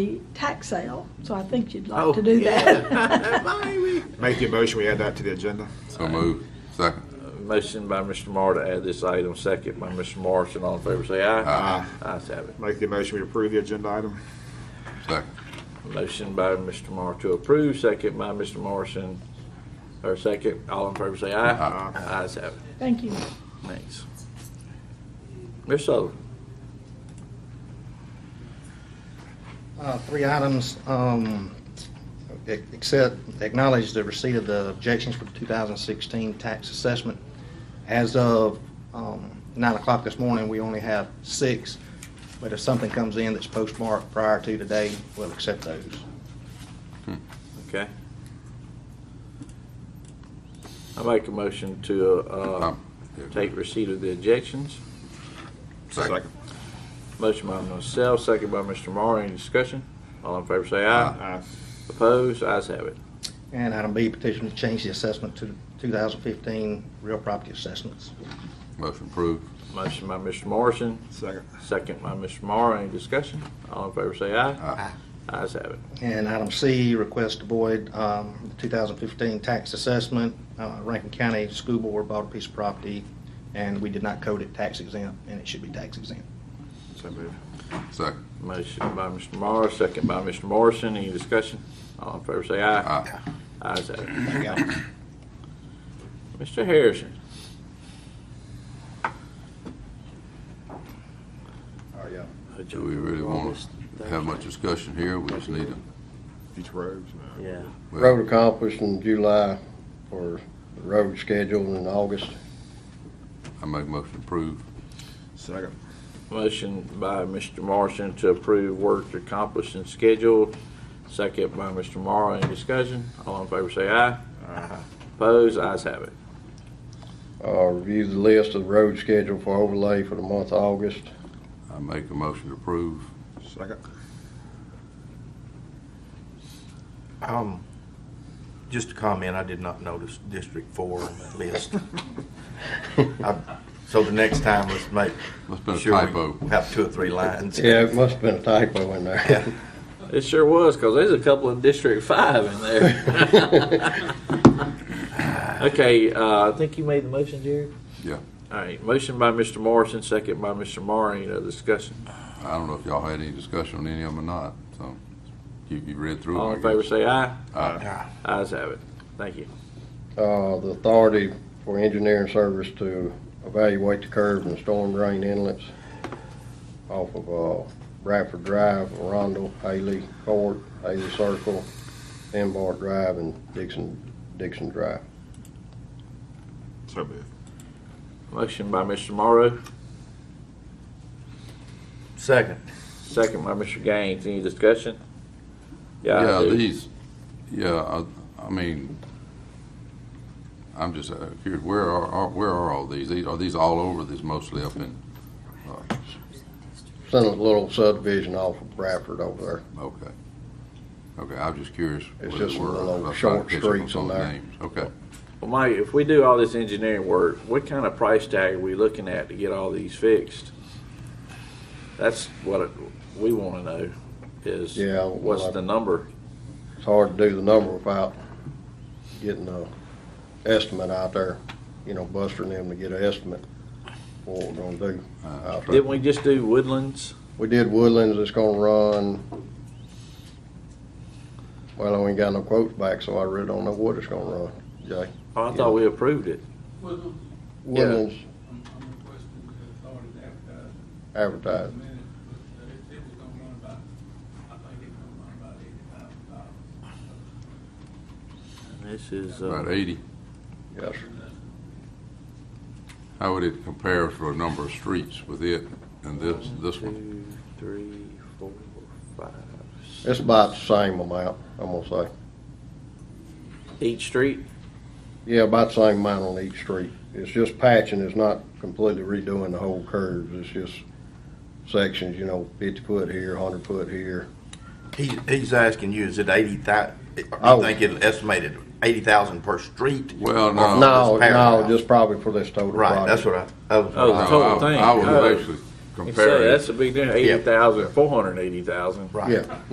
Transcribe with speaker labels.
Speaker 1: the tax sale, so I think you'd
Speaker 2: Oh,
Speaker 1: like to do
Speaker 2: yeah.
Speaker 1: that.
Speaker 2: Maybe.
Speaker 3: Make the motion, we add that to the agenda.
Speaker 4: So move. Second.
Speaker 2: Motion by Mr. Moore to add this item, second by Mr. Morrison. All in favor, say aye.
Speaker 4: Aye.
Speaker 2: Ayes have it.
Speaker 3: Uh, Make the motion, we approve the agenda item.
Speaker 4: Second.
Speaker 2: Motion by Mr. Moore to approve, second by Mr. Morrison, or second. All in favor, say aye.
Speaker 3: Aye.
Speaker 2: Ayes have it.
Speaker 1: Thank you.
Speaker 2: Thanks. Ms. Sullivan?
Speaker 5: Uh, Three items, um, ac- accept, acknowledge the receipt of the objections for the 2016 tax assessment. As of um, 9 o'clock this morning, we only have six, but if something comes in that's postmarked prior to today, we'll accept those.
Speaker 2: Okay. I make a motion to uh,
Speaker 4: Um, yeah.
Speaker 2: take receipt of the objections.
Speaker 4: Second.
Speaker 2: Motion by myself, second by Mr. Moore. Any discussion? All in favor, say aye.
Speaker 3: Aye.
Speaker 2: Opposed? Ayes have it.
Speaker 5: And item B, petition to change the assessment to 2015 real property assessments.
Speaker 4: Motion approved.
Speaker 2: Motion by Mr. Morrison,
Speaker 3: Second.
Speaker 2: second by Mr. Moore. Any discussion? All in favor, say aye.
Speaker 4: Aye.
Speaker 2: Ayes have it.
Speaker 5: And item C, request to void um, the 2015 tax assessment. Uh, Rankin County School Board bought a piece of property, and we did not code it tax exempt, and it should be tax exempt.
Speaker 3: So moved.
Speaker 4: Second.
Speaker 2: Motion by Mr. Moore, second by Mr. Morrison. Any discussion? All in favor, say aye.
Speaker 4: Aye.
Speaker 2: Ayes have it.
Speaker 5: There you go.
Speaker 2: Mr. Harrison.
Speaker 4: Do we really want to have much discussion here? We just need to.
Speaker 3: Beach Robes.
Speaker 2: Yeah.
Speaker 4: well,
Speaker 6: Road accomplished in July for the road scheduled in August.
Speaker 4: I make motion approved.
Speaker 3: Second.
Speaker 2: Motion by Mr. Morrison to approve work accomplished and scheduled, second by Mr. Morrow. Any discussion? All in favor, say aye. Aye. Opposed? Ayes have it.
Speaker 6: Uh, review the list of road schedule for overlay for the month of August.
Speaker 4: I make a motion to approve.
Speaker 3: Second.
Speaker 7: Um, just a comment, I did not notice District Four on that list. I- So the next time, let's make.
Speaker 4: Must been a
Speaker 7: sure we
Speaker 4: typo.
Speaker 7: Have two or three lines.
Speaker 6: Yeah, it must have been a typo in
Speaker 7: Yeah.
Speaker 6: there.
Speaker 2: It sure was, because there's a couple of District Five in there. Okay, uh, I think you made the motion, Jared?
Speaker 4: Yeah.
Speaker 2: All right, motion by Mr. Morrison, second by Mr. Morrow. Any other discussion?
Speaker 4: I don't know if y'all had any discussion on any of them or not, so you, you read through. 'em,
Speaker 2: All
Speaker 4: I
Speaker 2: in favor,
Speaker 4: guess.
Speaker 2: say aye.
Speaker 4: Aye.
Speaker 2: Ayes have it. Thank you.
Speaker 6: Uh, the authority for engineering service to evaluate the curves and storm drain inlets off of, uh, Bradford Drive, Rondell, Haley Court, Haley Circle, Embar Drive, and Dixon, Dixon Drive.
Speaker 3: So moved.
Speaker 2: Motion by Mr. Morrow,
Speaker 7: Second,
Speaker 2: Second by Mr. Gaines. Any discussion? I
Speaker 4: Yeah,
Speaker 2: do.
Speaker 4: these, yeah, I, I mean, I'm just uh, curious, where are, are, where are all these? These- Are these all over? These mostly up in, uh,
Speaker 6: Sent a little subdivision off of Bradford over there.
Speaker 4: okay. Okay, I was just curious.
Speaker 6: It's
Speaker 4: whether
Speaker 6: just
Speaker 4: we're-
Speaker 6: little
Speaker 4: I'm trying to
Speaker 6: short
Speaker 4: catch up on
Speaker 6: streets
Speaker 4: some
Speaker 6: in there.
Speaker 4: names. Okay.
Speaker 2: Well, Mike, if we do all this engineering work, what kind of price tag are we looking at to get all these fixed? That's what it- we want to know is
Speaker 6: Yeah, well,
Speaker 2: what's
Speaker 6: I-
Speaker 2: the number?
Speaker 6: It's hard to do the number without getting a estimate out there, you know, bustering them to get an estimate for what we're gonna do. out there.
Speaker 2: Didn't we just do Woodlands?
Speaker 6: We did Woodlands, it's gonna run, well, I ain't got no quotes back, so I really don't know what it's gonna run, Jay.
Speaker 2: Oh, I thought we approved it.
Speaker 8: Well,
Speaker 2: Yeah.
Speaker 6: Woodlands
Speaker 8: I'm, I'm requesting the authority to advertise a
Speaker 6: advertised,
Speaker 8: minute, but uh, it, it was gonna run about, I think it was gonna run about eighty thousand dollars.
Speaker 2: And This is,
Speaker 4: About
Speaker 2: uh,
Speaker 4: eighty.
Speaker 6: yes, sir.
Speaker 4: How would it compare for a number of streets with it and this, this one?
Speaker 2: two, three, four, five, six.
Speaker 6: It's about the same amount, I'm gonna say.
Speaker 2: Each street?
Speaker 6: Yeah, about the same amount on each street. It's just patching, it's not completely redoing the whole curves, it's just sections, you know, fifty foot here, hundred foot here.
Speaker 7: he, he's asking you, is it eighty thou, do
Speaker 6: Oh.
Speaker 7: you think it'll estimate it eighty thousand per street?
Speaker 4: Well,
Speaker 7: Or
Speaker 4: no.
Speaker 7: for
Speaker 6: No,
Speaker 7: this
Speaker 6: no,
Speaker 7: paragraph?
Speaker 6: just probably for this total project.
Speaker 7: Oh, Right, that's what I, that was
Speaker 2: Oh,
Speaker 7: what I-
Speaker 4: No,
Speaker 2: total
Speaker 4: I-
Speaker 2: thing.
Speaker 4: I was
Speaker 2: Oh.
Speaker 4: basically
Speaker 2: You say
Speaker 4: comparing.
Speaker 2: That's a big difference,
Speaker 7: Yeah.
Speaker 2: eighty thousand, four hundred and eighty thousand.
Speaker 7: right.
Speaker 6: Yeah.